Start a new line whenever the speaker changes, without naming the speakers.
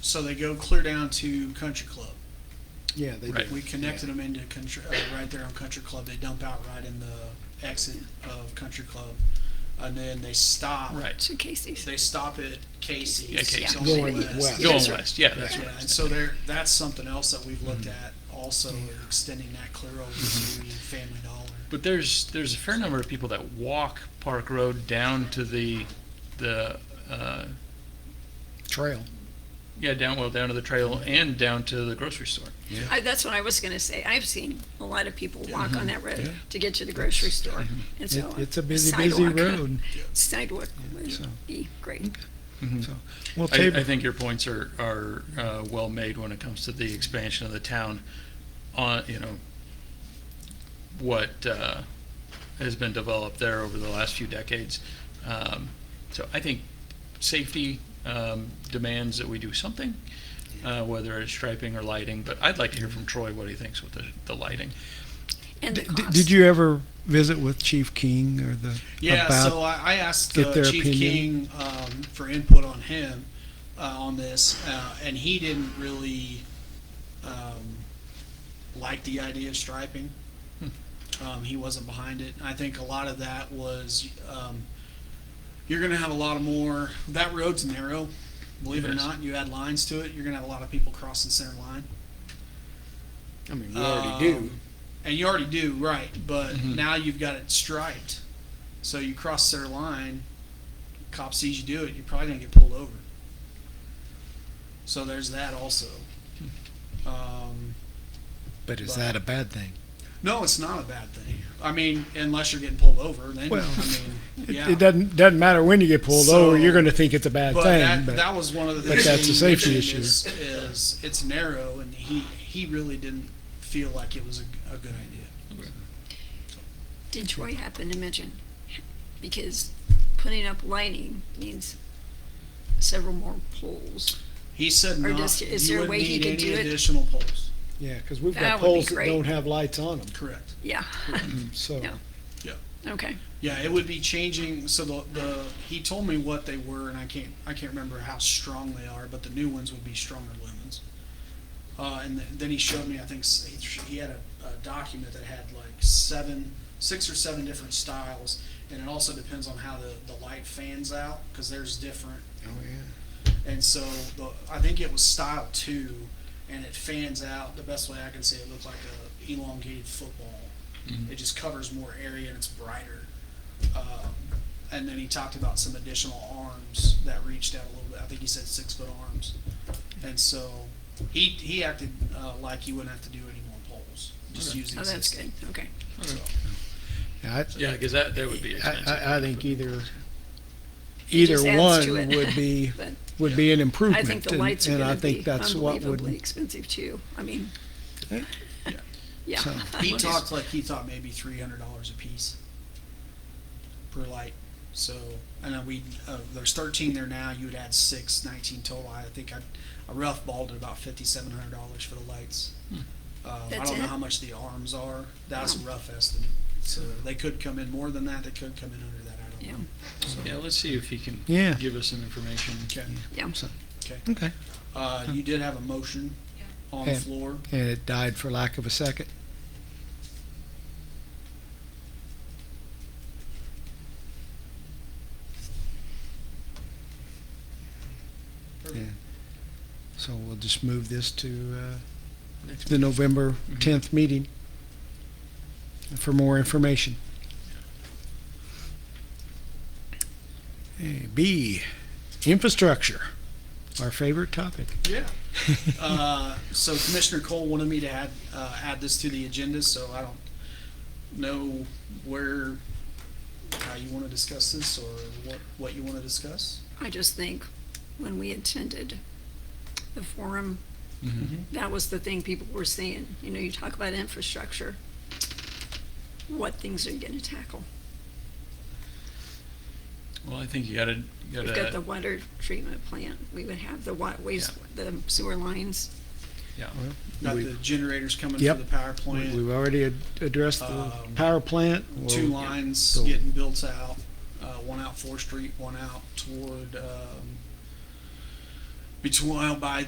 So they go clear down to Country Club.
Yeah, they
Right.
do.
We connected them into Country, uh, right there on Country Club. They dump out right in the exit of Country Club. And then they stop.
Right.
to Casey's.
They stop at Casey's.
Yeah, Casey's.
on the
Going west.
Going
That's right.
west, yeah, that's
Yeah,
right.
and so there, that's something else that we've looked
Mm-hmm.
at also, extending that clear over to Family Dollar.
But there's, there's a fair number of people that walk Park Road down to the, the, uh,
Trail.
yeah, down, well, down to the trail and down to the grocery store.
I, that's what I was gonna say. I've seen a lot of people
Mm-hmm.
walk on that road to get to the grocery store. And
It,
so uh,
it's a busy, busy
sidewalk-
road.
Sidewalk would
So-
be great.
So, well,
I, I
Tab-
think your points are, are, uh, well made when it comes to the expansion of the town on, you know, what, uh, has been developed there over the last few decades. Um, so I think safety, um, demands that we do something, uh, whether it's striping or lighting, but I'd like to hear from Troy what he thinks with the, the lighting.
And the
d-
cost.
did you ever visit with Chief King or the
Yeah,
about
so I, I asked
get
uh,
their
Chief
opinion?
King um, for input on him uh, on this, uh, and he didn't really um, like the idea of striping.
Hmm.
Um, he wasn't behind it. I think a lot of that was um, you're going to have a lot of more. That road's narrow, believe it, or
It is.
not. You add lines to it, you're going to have a lot of people crossing center line.
I mean, we already do. Mm-hmm.
Um, And you already do, right, but now you've got it striped. So you cross their line, cop sees you do it, you're probably gonna get pulled over. So there's that also.
Hmm.
Um,
But is that a bad thing?
no, it's not a bad thing. I mean, unless you're getting pulled over, then,
Well,
I mean,
It,
yeah.
it doesn't doesn't matter when you get pulled
So-
over. You're going to think it's a bad
But
thing.
that,
but
that was one of the
but
things.
that's a
he
safety
mentioned Is,
issue.
is it's narrow and he, he really didn't feel like it was a, a good idea.
Did Troy happen to mention? Because putting up lighting means several more poles.
He said
Or
not,
just-
you
is there a
wouldn't
way he
need
could
any
do it?
additional poles.
yeah, because we've
That
got
would be
poles that
great.
don't have lights on them.
Correct.
Yeah,
So
Yeah.
Yeah.
okay.
Yeah, it would be changing, so the, the, he told me what they were, and I can't, I can't remember how strong they are, but the new ones would be stronger lumens. Uh, and th- then he showed me, I think, s- he sh- he had a, a document that had like seven, six or seven different styles, and it also depends on how the, the light fans out, cause there's different.
Oh, yeah.
And so, the, I think it was style two, and it fans out, the best way I can say it looked like a elongated football. It just covers more area and it's brighter. Um, and then he talked about some additional arms that reached out a little bit. I think he said six foot arms. And so he, he acted uh, like he wouldn't have to do any more poles, just use the
Oh, that's good.
existing.
Okay.
So,
I,
Yeah, because that, that would be
I,
expensive.
I, I think either either
just adds
one
to it.
would be
But
would be an
I
improvement.
think the
and-
lights are
and I
gonna
think
be
that's what
unbelievably
would
expensive too. I mean,
Yeah.
yeah.
So-
he talked like he thought maybe three hundred dollars a piece per light. So I know we uh, there's thirteen there now. You would add six, 19 total. I think I, I rough balled at about fifty seven hundred dollars for the lights. Um, I
That's
don't know
it?
how much the arms are. That's a
Wow.
rough estimate. So they could come in more than that. They could come in under that. I don't
Yeah,
know.
Yeah, let's see if he can
Yeah.
give us some information.
Okay.
yeah.
Okay.
okay.
Uh, you did have a motion on the
And-
floor.
And it died for lack of a second. Yeah. So we'll just move this to uh,
Next
the November 10th meeting for more information. Okay, B, infrastructure, our favorite topic.
Yeah. Uh, So Commissioner Cole wanted me to add, uh, add this to the agenda, so I don't know where, how you want to discuss this or what, what you want to discuss.
I just think when we attended the forum,
Mhm.
that was the thing people were saying. You know, you talk about infrastructure. What things are you gonna tackle?
Well, I think you gotta, you
We've got
gotta,
the water treatment plant. We would have the wa- waste, the sewer lines.
yeah.
Got
We-
the generators coming for
Yep.
the power
We-
plant,
We've already ad- addressed the
Um,
power plant.
two
We'll-
lines
So-
getting built out, uh, one out Fourth Street, one out toward, um, between, well, by